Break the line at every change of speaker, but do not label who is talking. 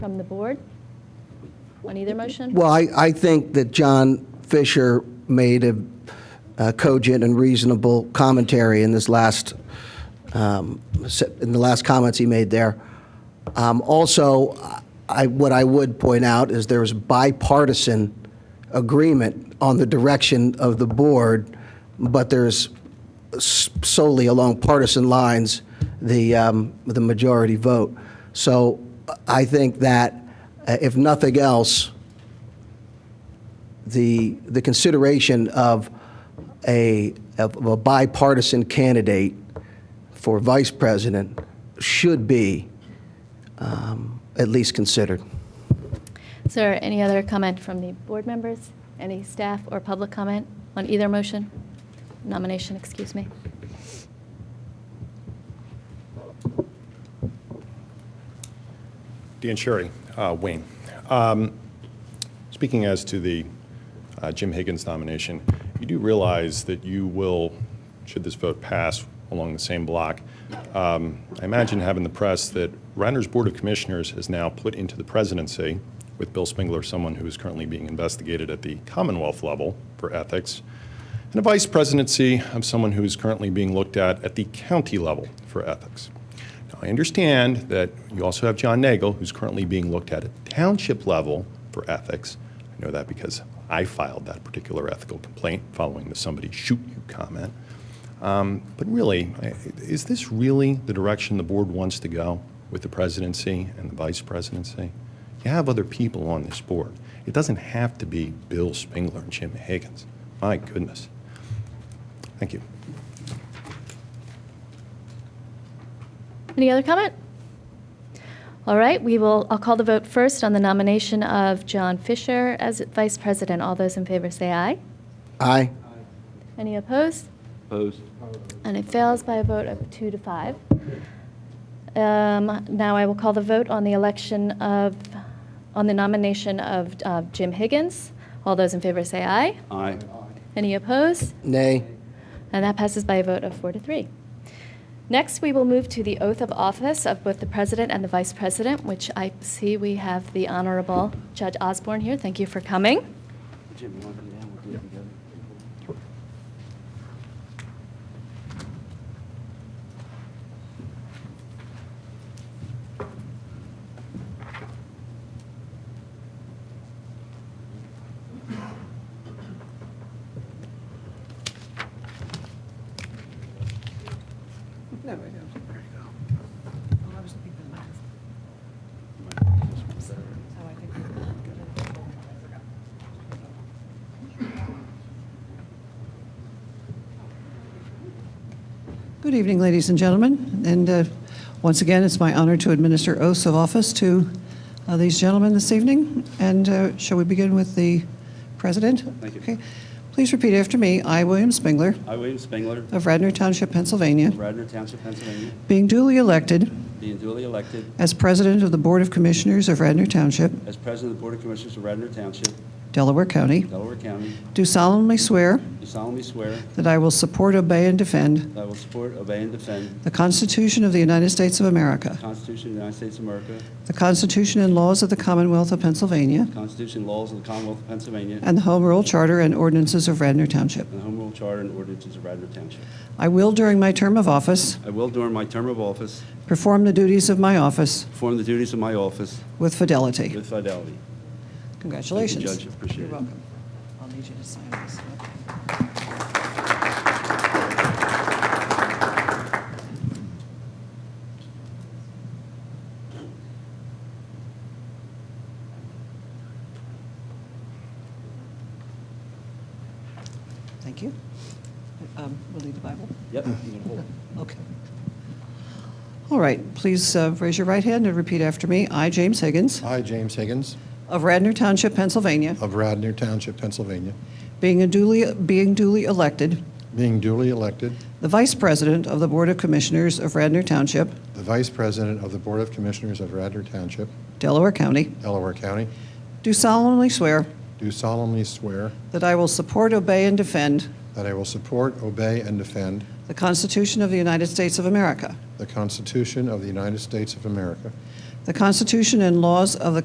from the board on either motion?
Well, I, I think that John Fisher made a uh, cogent and reasonable commentary in this last, um, se- in the last comments he made there. Um, Also, I, what I would point out is there is bipartisan agreement on the direction of the board, but there's s- solely along partisan lines, the, um, the majority vote. So I think that, uh, if nothing else, the, the consideration of a, of a bipartisan candidate for vice president should be um, at least considered.
Is there any other comment from the board members? Any staff or public comment on either motion? Nomination, excuse me.
Dan Sherry, uh, Wayne. Um, Speaking as to the uh, Jim Higgins nomination, you do realize that you will, should this vote pass along the same block, um, I imagine having the press that Reiner's Board of Commissioners has now put into the presidency, with Bill Spengler, someone who is currently being investigated at the Commonwealth level for ethics, and a vice presidency of someone who is currently being looked at at the county level for ethics. Now, I understand that you also have John Nagel, who's currently being looked at at township level for ethics. I know that because I filed that particular ethical complaint following the somebody shoot you comment. Um, but really, I- is this really the direction the board wants to go with the presidency and the vice presidency? You have other people on this board. It doesn't have to be Bill Spengler and Jim Higgins. My goodness. Thank you.
Any other comment? All right, we will, I'll call the vote first on the nomination of John Fisher as vice president. All those in favor say aye.
Aye?
Any opposed?
Opposed?
And it fails by a vote of two to five. Um, Now I will call the vote on the election of, on the nomination of uh, Jim Higgins. All those in favor say aye.
Aye.
Any opposed?
Nay?
And that passes by a vote of four to three. Next, we will move to the oath of office of both the president and the vice president, which I see we have the Honorable Judge Osborne here. Thank you for coming.
Jim, you want to do that? We'll do it together.
No, I don't. There you go. Well, I was looking for the last. So I think we're good. I forgot. Good evening, ladies and gentlemen. And uh, once again, it's my honor to administer oaths of office to uh, these gentlemen this evening. And uh, shall we begin with the president?
Thank you.
Okay. Please repeat after me. I, William Spengler,
I, William Spengler,
of Radnor Township, Pennsylvania,
of Radnor Township, Pennsylvania,
being duly elected
being duly elected
As president of the Board of Commissioners of Radnor Township,
as president of the Board of Commissioners of Radnor Township,
Delaware County,
Delaware County,
do solemnly swear
do solemnly swear
that I will support, obey, and defend
that I will support, obey, and defend
the Constitution of the United States of America,
the Constitution of the United States of America,
the Constitution and laws of the Commonwealth of Pennsylvania,
the Constitution and laws of the Commonwealth of Pennsylvania, and
and the Home Rule Charter and ordinances of Radnor Township.
the Home Rule Charter and ordinances of Radnor Township.
I will, during my term of office,
I will, during my term of office,
perform the duties of my office
perform the duties of my office
with fidelity.
with fidelity.
Congratulations.
Thank you, Judge. Appreciate
You're
it.
welcome. I'll need you to sign this. Thank you. Um, We'll need the Bible.
Yep. you can hold it.
Okay. All right, please uh, raise your right hand and repeat after me. I, James Higgins,
I, James Higgins,
of Radnor Township, Pennsylvania,
of Radnor Township, Pennsylvania,
Being a duly, being duly elected,
being duly elected
the Vice President of the Board of Commissioners of Radnor Township,
the Vice President of the Board of Commissioners of Radnor Township,
Delaware County,
Delaware County,
do solemnly swear
do solemnly swear
that I will support, obey, and defend
that I will support, obey, and defend
the Constitution of the United States of America,
the Constitution of the United States of America,
the Constitution and laws of the